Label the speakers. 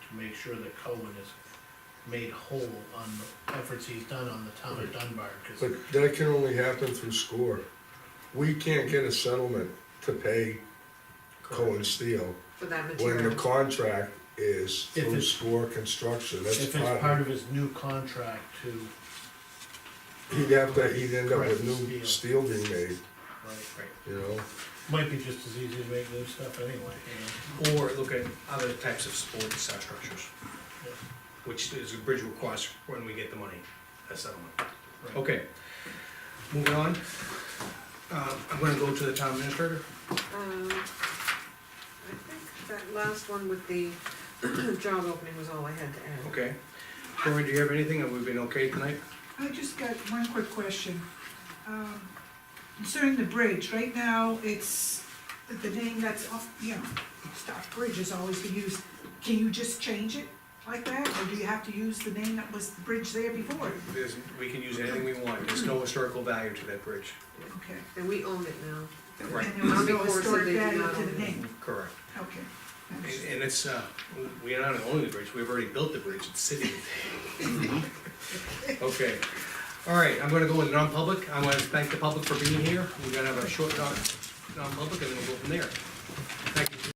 Speaker 1: to make sure that Cohen is made whole on the efforts he's done on the town of Dunbar, cause,
Speaker 2: But that can only happen through SCORE. We can't get a settlement to pay Cohen Steel
Speaker 3: for that
Speaker 2: when the
Speaker 3: material.
Speaker 2: contract is
Speaker 1: If
Speaker 2: through
Speaker 1: it's-
Speaker 2: SCORE Construction, that's
Speaker 1: if it's part
Speaker 2: part,
Speaker 1: of his new contract to,
Speaker 2: he'd have to, he'd end up with
Speaker 1: Correct,
Speaker 2: new
Speaker 1: steel.
Speaker 2: steel being made,
Speaker 1: like,
Speaker 2: you know?
Speaker 1: might be just as easy to make new stuff anyway, you
Speaker 4: Or look at other types of supporting site structures,
Speaker 1: Yeah.
Speaker 4: which is a bridge request when we get the money, a settlement.
Speaker 1: know? Right.
Speaker 4: Okay, moving on. Uh, I'm gonna go to the town administrator.
Speaker 3: Um, I think that last one with the job opening was all I had to add.
Speaker 4: Okay. Cory, do you have anything? Have we been okay tonight?
Speaker 5: I just got one quick question. Um, Concerning the bridge, right now, it's, the name that's off, you know, Stock Bridge has always been used. Can you just change it like that, or do you have to use the name that was the bridge there before?
Speaker 4: There's, we can use anything we want. There's no historical value to that bridge.
Speaker 5: Okay.
Speaker 3: And we own it now.
Speaker 4: Right.
Speaker 5: And there was no
Speaker 3: Army Corps said
Speaker 5: historic
Speaker 3: they did
Speaker 5: value
Speaker 3: not
Speaker 5: to
Speaker 3: own it.
Speaker 5: the
Speaker 1: Mm-hmm.
Speaker 5: name,
Speaker 4: Correct.
Speaker 5: okay.
Speaker 4: And, and it's, uh, we are not only the bridge, we've already built the bridge, it's sitting. Okay, all right, I'm gonna go in non-public, I wanna thank the public for being here, we're gonna have a short talk, non-public, and then we'll go from there. Thank you.